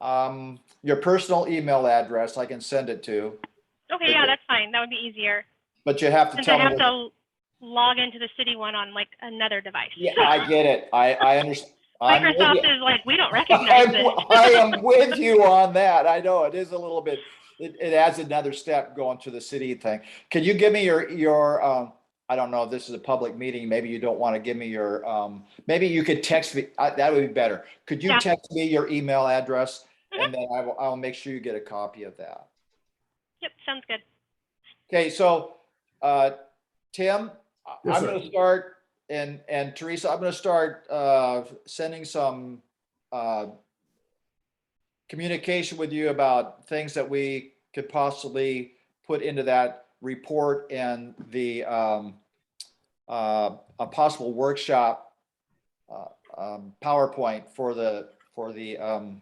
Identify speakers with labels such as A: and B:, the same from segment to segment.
A: um, your personal email address, I can send it to,
B: Okay, yeah, that's fine. That would be easier.
A: but you have to
B: Since
A: tell
B: I
A: me.
B: have
A: what-
B: to log into the city one on like another device.
A: Yeah, I get it. I, I understand.
B: Microsoft is like, we don't recognize
A: I'm-
B: it.
A: I am with you on that. I know it is a little bit, it, it adds another step going to the city thing. Can you give me your, your, um, I don't know if this is a public meeting, maybe you don't want to give me your, um, maybe you could text me, uh, that would be better. Could you
B: Yeah. Mm-hmm.
A: text me your email address? And then I will, I'll make sure you get a copy of that.
B: Yep, sounds good.
A: Okay, so, uh, Tim, I-
C: Yes,
A: I'm
C: sir.
A: gonna start, and, and Teresa, I'm gonna start, uh, sending some, uh, communication with you about things that we could possibly put into that report and the, um, uh, a possible workshop, uh, um, PowerPoint for the, for the, um,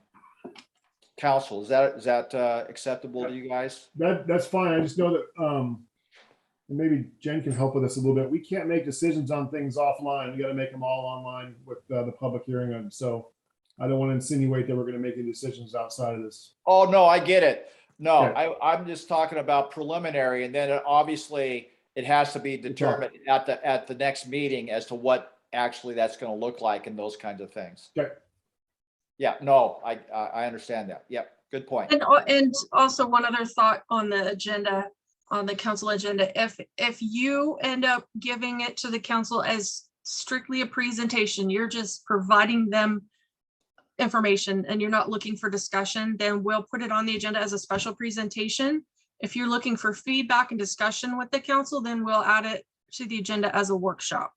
A: council. Is that, is that, uh, acceptable to you guys?
C: That, that's fine. I just know that, um, and maybe Jen can help with us a little bit. We can't make decisions on things offline. We gotta make them all online with uh, the public hearing on, so I don't want to insinuate that we're gonna make any decisions outside of this.
A: Oh, no, I get it. No,
C: Okay.
A: I, I'm just talking about preliminary and then it- obviously it has to be determined at the, at the next meeting as to what actually that's gonna look like and those kinds of things.
C: Okay.
A: Yeah, no, I, I, I understand that. Yep, good point.
D: And, al- and also one other thought on the agenda, on the council agenda, if, if you end up giving it to the council as strictly a presentation, you're just providing them information and you're not looking for discussion, then we'll put it on the agenda as a special presentation. If you're looking for feedback and discussion with the council, then we'll add it to the agenda as a workshop.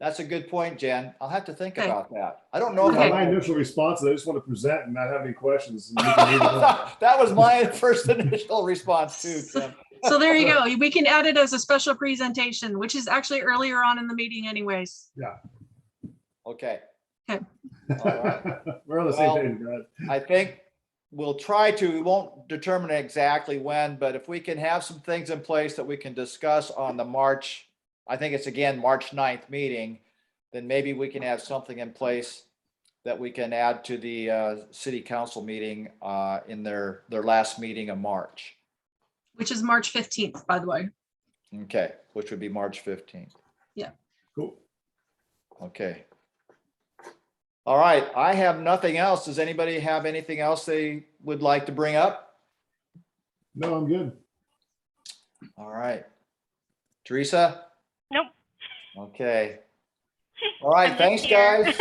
A: That's a good point, Jen. I'll have to think
D: Okay.
A: about that. I don't know. if
C: My
A: I-
C: initial response is I just want to present and not have any questions. and we can move on.
A: That was my first initial response too, Tim.
D: So there you go. We can add it as a special presentation, which is actually earlier on in the meeting anyways.
A: Okay.
D: Okay.
A: All right.
C: We're on the same
A: Well-
C: page, guys.
A: I think we'll try to, we won't determine exactly when, but if we can have some things in place that we can discuss on the March, I think it's again, March 9th meeting, then maybe we can have something in place that we can add to the uh, city council meeting uh, in their, their last meeting of March.
D: Which is March fifteenth, by the way.
A: Okay, which would be March 15th.
C: Cool.
A: Okay. All right, I have nothing else. Does anybody have anything else they would like to bring up?
C: No, I'm good.
A: All right. Teresa?
B: Nope.
A: Okay. All right,
B: I'm
A: thanks,
B: just here.
A: guys.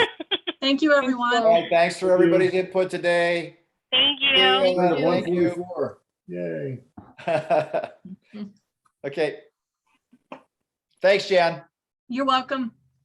D: Thank you, everyone.
A: All right, thanks for
C: Thank you.
A: everybody's input today.
B: Thank
A: Yeah.
B: you.
A: Thank you.
C: One forty-four. Yay.
A: Okay. Thanks, Jan.
D: You're welcome.